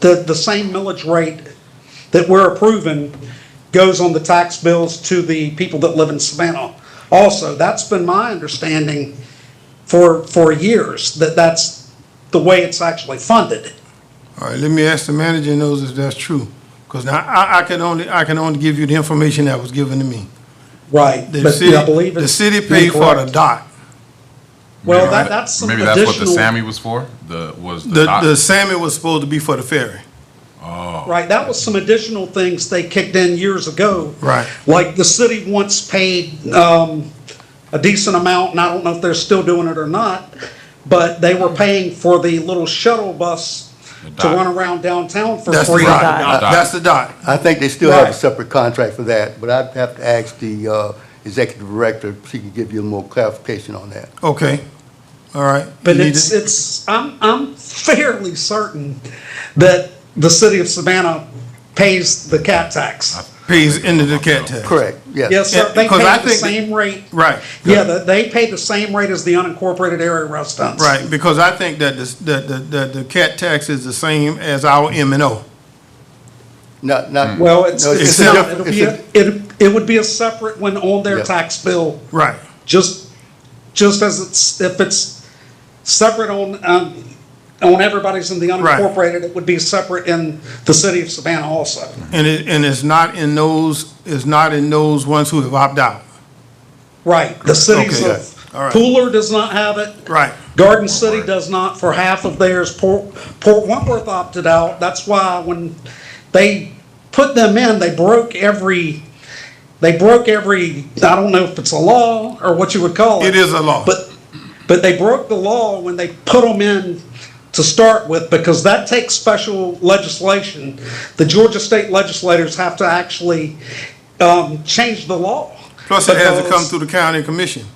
the, the same millage rate that we're approving goes on the tax bills to the people that live in Savannah. Also, that's been my understanding for, for years, that that's the way it's actually funded. All right, let me ask the manager and those if that's true. Because now, I, I can only, I can only give you the information that was given to me. Right. The But city- I believe it's. The city paid for the incorrect. dock. Well, Maybe that- I- that's some Maybe that's what the additional- Sammy was for, the, was the The, dock? the salmon was supposed to be for the ferry. Right, that was some additional things they kicked in years ago. Right. Like the city once paid um, a decent amount, and I don't know if they're still doing it or not, but they were paying for the little shuttle bus to dock. run around downtown for That's the free. dock. dock. That's the dock. I think they still have a Right. separate contract for that, but I'd have to ask the uh, executive director if she can give you more clarification on that. Okay, all right. But You need it's, it? it's, I'm, I'm fairly certain that the city of Savannah pays the cat tax. Pays into the cat tax. Correct, yes. Yes, sir, they pay Because I the think that- same rate. Right. Yeah, the- they pay the same rate as the unincorporated area restaurants. Right, because I think that this, that, that, that the cat tax is the same as our M and O. Not, not. Well, it's, no, it's a not, diff- it'll it's be, a- a- it, it would be a separate one on their Yeah. tax bill, Right, just, just as it's, if it's separate on, um, on everybody's in the Right. unincorporated, it would be separate in the city of Savannah also. and it, and it's not in those, it's not in those ones who have opted out. Right, the cities Okay. of, All right. Pooler does not have it. Right. Garden City does not for half of theirs. Port, Port Wentworth opted out. That's why when they put them in, they broke every, they broke every, I don't know if it's a law or what you would call it. It is a law. But, but they broke the law when they put them in to start with because that takes special legislation. The Georgia state legislators have to actually, um, change the law. Plus, it has to come Because- through the county commission.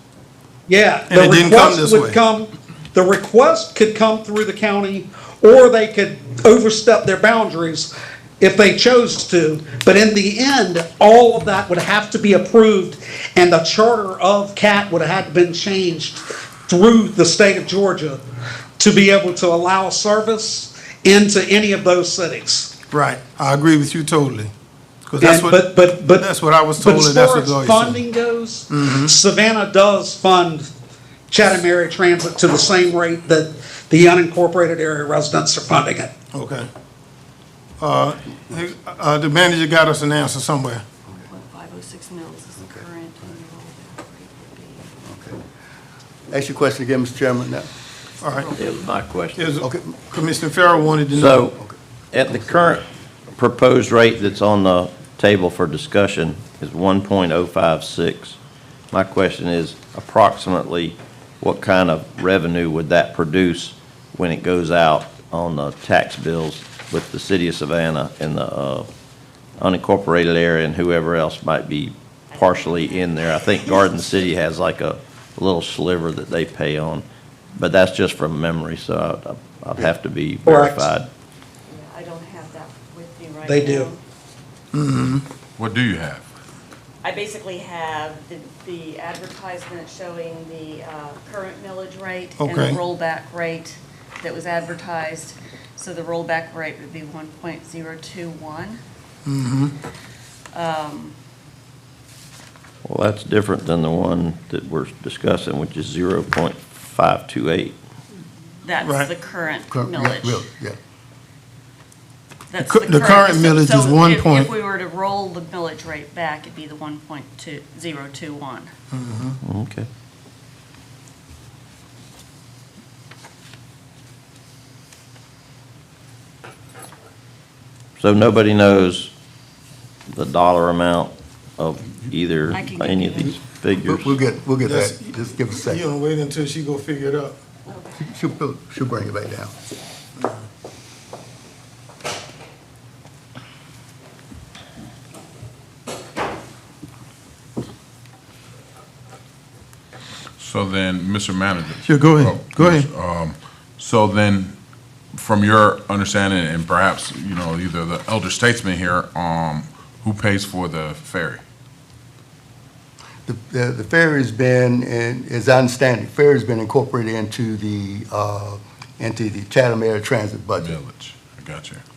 yeah. And the it didn't come request this would way. come- The request could come through the county, or they could overstep their boundaries if they chose to. But in the end, all of that would have to be approved, and the charter of CAT would have had been changed through the state of Georgia to be able to allow service into any of those cities. Right, I agree with you totally. 'Cause that's And- but, what- but, but. That's what I was but told, and that's what as far as Lois said. Mm-hmm. funding goes, Savannah does fund Chatham area transit to the same rate that the unincorporated area residents are funding it. Okay. Uh, hey, uh, the manager got us an answer somewhere. What 506 mills oh is the current enrolled rate Ask your question again, Mr. Chairman, now. All right, It was my question. Is- Okay. Commissioner Farrell wanted to know. So, at the current proposed rate that's on the table for discussion is 1.056. My question is approximately, what kind of revenue would that produce when it goes out on the tax bills with the city of Savannah and the uh, unincorporated area and whoever else might be partially in there? I think Garden City has like a little sliver that they pay on, but that's just from memory, so I- I'd have to be Correct. verified. would be. I don't have that with me right now. They do. What do you have? I basically have the- the advertisement showing the uh, current millage rate and Okay. the rollback rate that was advertised. So the rollback rate would be 1.021. Mm-hmm. Um, Well, that's different than the one that we're discussing, which is 0.528. That's Right. the current Cor- yeah, real- millage. Yeah, That's The cur- the current so- millage so is if- 1 point- If we were to roll the millage rate back, it'd be the 1.2021. Okay. So nobody knows the dollar amount of either, I can get any of you that. these We'll- figures? we'll get, we'll get that, That's- just give us a You second. don't wait until she go figure it out. She'll, she'll bring it back down. So then, Mr. Manager. Sure, go ahead. Oh, Go ahead. um, So then, from your understanding, and perhaps, you know, either the elder statesman here, um, who pays for the ferry? The, the the ferry's been, and as I understand it, ferry's been incorporated into the, uh, into the Chatham Air Transit budget. Village, I got you.